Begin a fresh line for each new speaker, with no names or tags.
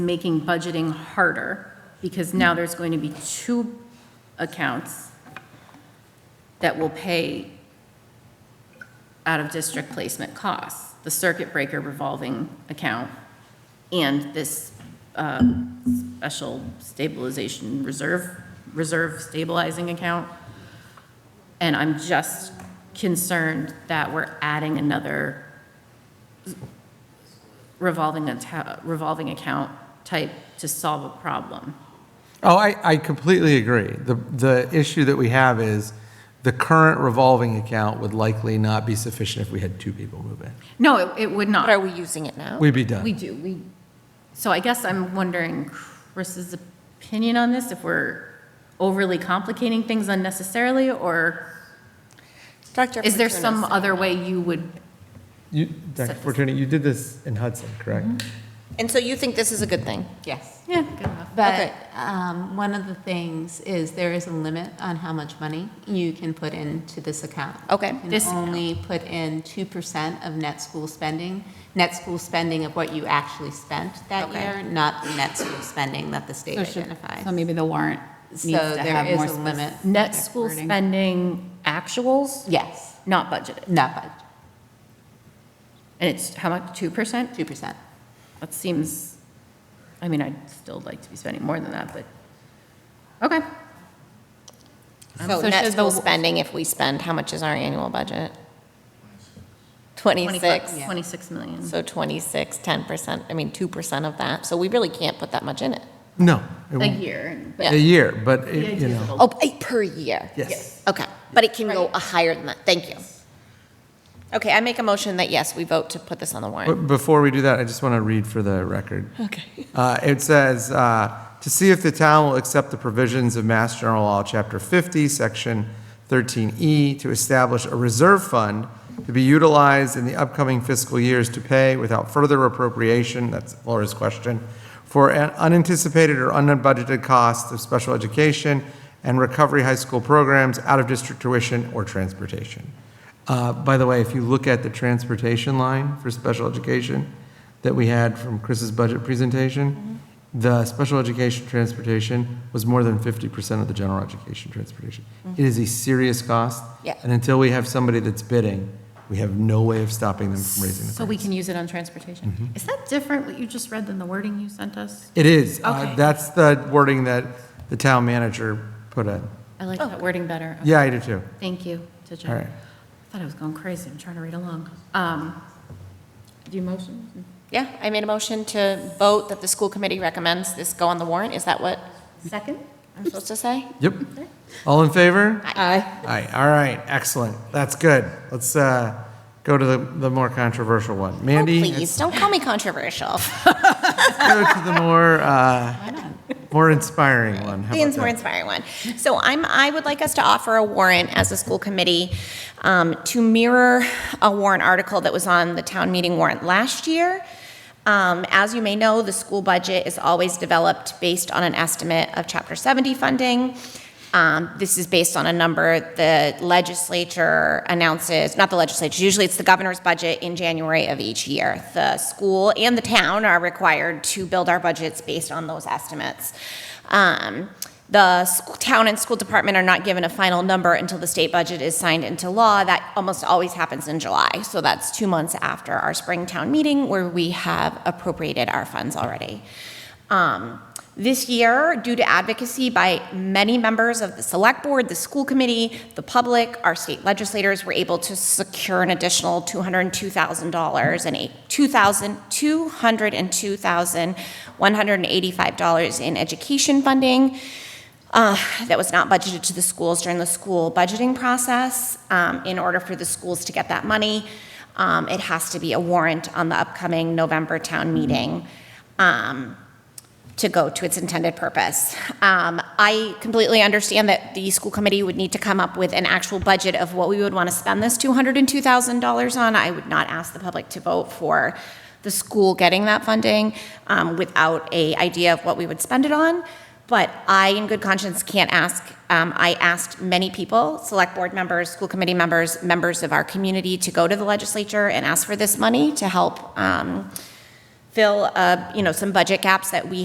making budgeting harder, because now there's going to be two accounts that will pay out-of-district placement costs, the circuit breaker revolving account and this uh, special stabilization reserve, reserve stabilizing account. And I'm just concerned that we're adding another revolving, atta- revolving account type to solve a problem.
Oh, I, I completely agree. The, the issue that we have is the current revolving account would likely not be sufficient if we had two people move in.
No, it- it would not.
But are we using it now?
We'd be
We
done.
do, we, so I guess I'm wondering Chris's opinion on this, if we're overly complicating things unnecessarily, or
Dr.
is there
Paterno's
some
saying-
other way you would,
You, Dr. Fortuny, you did this in Hudson, correct?
And so you think this is a good thing?
Yes.
yeah, good enough.
But um, one of the things is there is a limit on how much money you can put into this account.
Okay.
You
This
can only put in 2% of net school spending, net school spending of what you actually spent that
Okay.
year, not the net school spending that the state
So should- So
identifies.
maybe the warrant needs
So
to
there
have more.
is a
spec-
limit.
Net school
Wording.
spending actuals,
Yes,
not budgeted,
not budget,
and it's how much, 2%?
2%.
That seems, I mean, I'd still like to be spending more than that, but, okay.
So
So net
should
school
the-
spending, if we spend, how much is our annual budget? 26,
26 million.
so 26, 10%, I mean, 2% of that, so we really can't put that much in it.
No. it
A
won't.
year. but
A year, but,
the
it-
idea
you
is
know,
it'll-
Oh, eight per year?
yes.
Okay, but it can go a higher than that, thank you. Okay, I make a motion that yes, we vote to put this on the warrant.
But before we do that, I just want to read for the record.
Okay.
Uh, It says, uh, "To see if the town will accept the provisions of Mass General Law, Chapter 50, Section 13E, to establish a reserve fund to be utilized in the upcoming fiscal years to pay without further appropriation," that's Laura's question, "for an unanticipated or unbudgeted costs of special education and recovery high school programs, out-of-district tuition, or transportation." Uh, By the way, if you look at the transportation line for special education that we had from Chris's budget presentation,
Mm-hmm.
the special education transportation was more than 50% of the general education transportation. It is a serious cost.
Mm-hmm. Yeah.
And until we have somebody that's bidding, we have no way of stopping them from raising the
So
price.
we can use it on transportation?
Mm-hmm.
Is that different, what you just read, than the wording you sent us?
It is. Uh,
Okay.
That's the wording that the town manager put in.
I like that wording better.
Oh, Yeah, I do too.
Thank you to
All
Jen.
right.
I Thought I was going crazy, I'm trying to read along. Um, Do you motion?
Yeah, I made a motion to vote that the school committee recommends this go on the warrant, is that what
Second?
I'm supposed to say?
Yep. All in favor?
Aye.
Aye, all right, excellent, that's good. Let's uh, go to the, the more controversial one.
Oh,
Mandy,
please, don't call me controversial.
let's go to the more, uh, more inspiring one. How
Ian's
about
more
that?
inspiring one. So I'm, I would like us to offer a warrant as a school committee um, to mirror a warrant article that was on the town meeting warrant last year. Um, As you may know, the school budget is always developed based on an estimate of Chapter 70 funding. Um, This is based on a number the legislature announces, not the legislature, usually it's the governor's budget in January of each year. The school and the town are required to build our budgets based on those estimates. Um, The sch- town and school department are not given a final number until the state budget is signed into law. That almost always happens in July, so that's two months after our spring town meeting where we have appropriated our funds already. Um, This year, due to advocacy by many members of the select board, the school committee, the public, our state legislators were able to secure an additional $202,000 and eight- 2,000 $202,185 in education funding uh, that was not budgeted to the schools during the school budgeting process. Um, In order for the schools to get that money, um, it has to be a warrant on the upcoming November town meeting. Um, to go to its intended purpose. Um, I completely understand that the school committee would need to come up with an actual budget of what we would want to spend this $202,000 on. I would not ask the public to vote for the school getting that funding um, without a idea of what we would spend it on. But I, in good conscience, can't ask. Um, I asked many people, select board members, school committee members, members of our community, to go to the legislature and ask for this money to help um, fill, uh, you know, some budget gaps that we